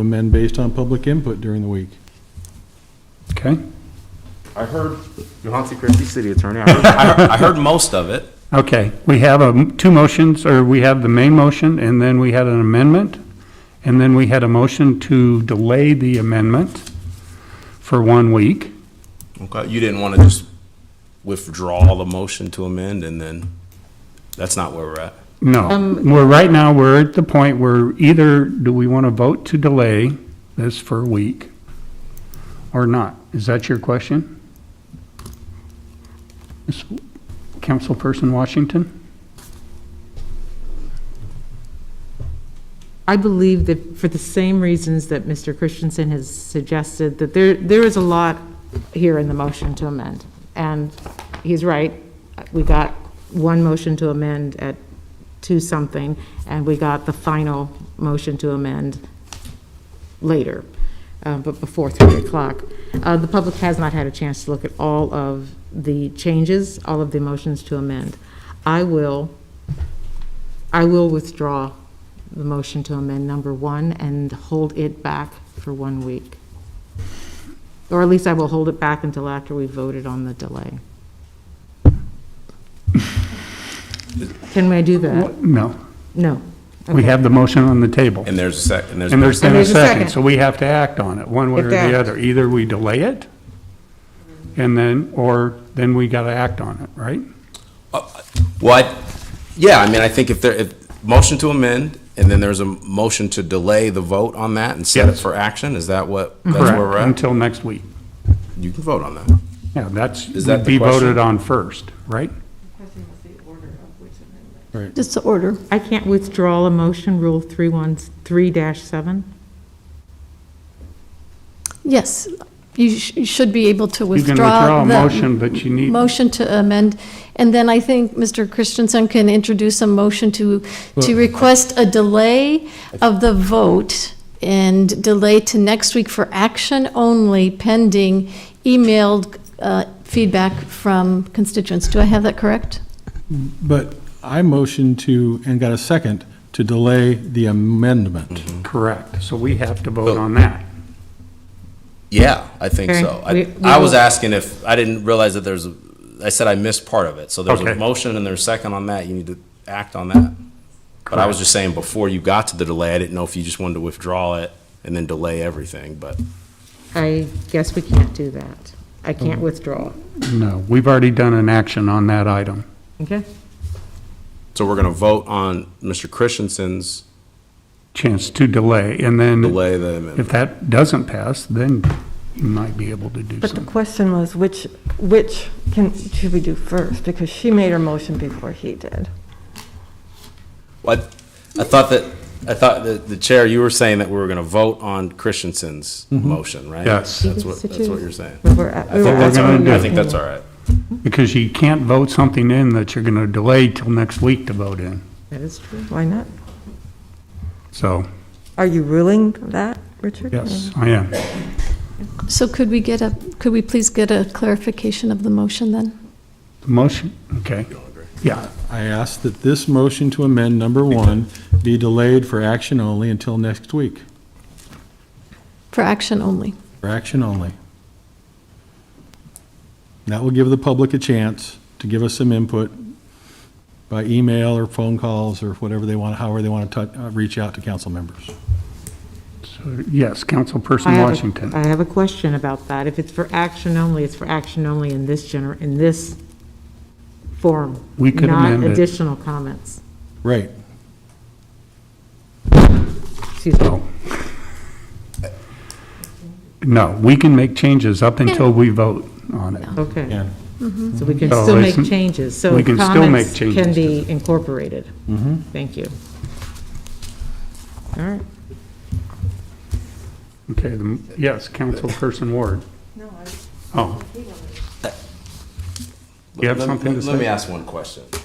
amend based on public input during the week. Okay, I heard. Johansson Christie City Attorney. I heard, I heard- I heard most of it. okay, we have um, two motions, or we have the main motion, and then we had an amendment, and then we had a motion to delay the amendment for one week. Okay, you didn't want to just withdraw the motion to amend and then, that's not where we're at. No, we're, right now, we're at the point where either do we want to vote to delay this for a week or not? Is that your question? Ms. Councilperson Washington? I believe that for the same reasons that Mr. Christensen has suggested, that there, there is a lot here in the motion to amend. And he's right, we got one motion to amend at two something, and we got the final motion to amend later, uh, but before 3 o'clock. Uh, The public has not had a chance to look at all of the changes, all of the motions to amend. I will, I will withdraw the motion to amend number one and hold it back for one week. Or at least I will hold it back until after we voted on the delay. Can I do that? No, No. we have the motion on the table. And there's a sec, and there's. And there's been And a there's a second, second. so we have to act on it, one way or Exactly. the other. Either we delay it, and then, or then we got to act on it, right? What, Uh, yeah, I mean, I think if there, if, motion to amend, and then there's a motion to delay the vote on that and set it Yes. for action, is that what, that's Correct. where we're at? Until next week. You can vote on that. Yeah, that's, Is that be the voted question? on first, right? Just the order. I can't withdraw a motion, Rule 313-7? Yes, you sh- you should be able to You can withdraw withdraw a the motion, but you need, motion to amend, and then I think Mr. Christensen can introduce a motion to, to request a delay of the vote and delay to next week for action only pending emailed uh, feedback from constituents. Do I have that correct? But I motioned to, and got a second, to delay the amendment. Mm-hmm. correct, so we have to vote on that. Yeah, I think Okay, so. I, we- we I was will- asking if, I didn't realize that there's, a- I said I missed part of it. So there's a Okay. motion and there's a second on that, you need to act on that. But I was just saying, before you got to the delay, I didn't know if you just wanted to withdraw it and then delay everything, but I guess we can't do that. I Oh. can't withdraw. No, we've already done an action on that item. Okay? So we're gonna vote on Mr. Christensen's Chance to delay, and then delay the amendment. if that doesn't pass, then you might be able to do But the something. question was, which, which can, should we do first? Because she made her motion before he did. What, I thought that, I thought that the chair, you were saying that we were gonna vote on Christensen's motion, right? Mm-hmm. Yes. That's what, that's what you're saying. We were at- I we were think that's all asking right. gonna I do. think that's all right. Because you can't vote something in that you're going to delay till next week to vote in, That is true. Why not? so, Are you ruling that, Richard? yes, I am. So could we get a, could we please get a clarification of the motion then? Motion, okay. Yeah, I asked that this motion to amend number one be delayed for action only until next week, For action only. for action only. That will give the public a chance to give us some input by email or phone calls or whatever they want, however they want to tou- uh, reach out to council members. so, yes, I Councilperson have a- Washington. I have a question about that. If it's for action only, it's for action only in this gener, in this form. We could amend it. Not additional comments. Right. Excuse Oh. me. No, we can make changes up until we vote on it. Okay. Yeah. So we can So still make it's- changes. So Oh, we can still comments make changes Mm-hmm. Can to be incorporated. Thank you. All right. Okay, the- yes, Councilperson Ward. No, I. Oh. You have Let- something to let- Let me say? ask one question.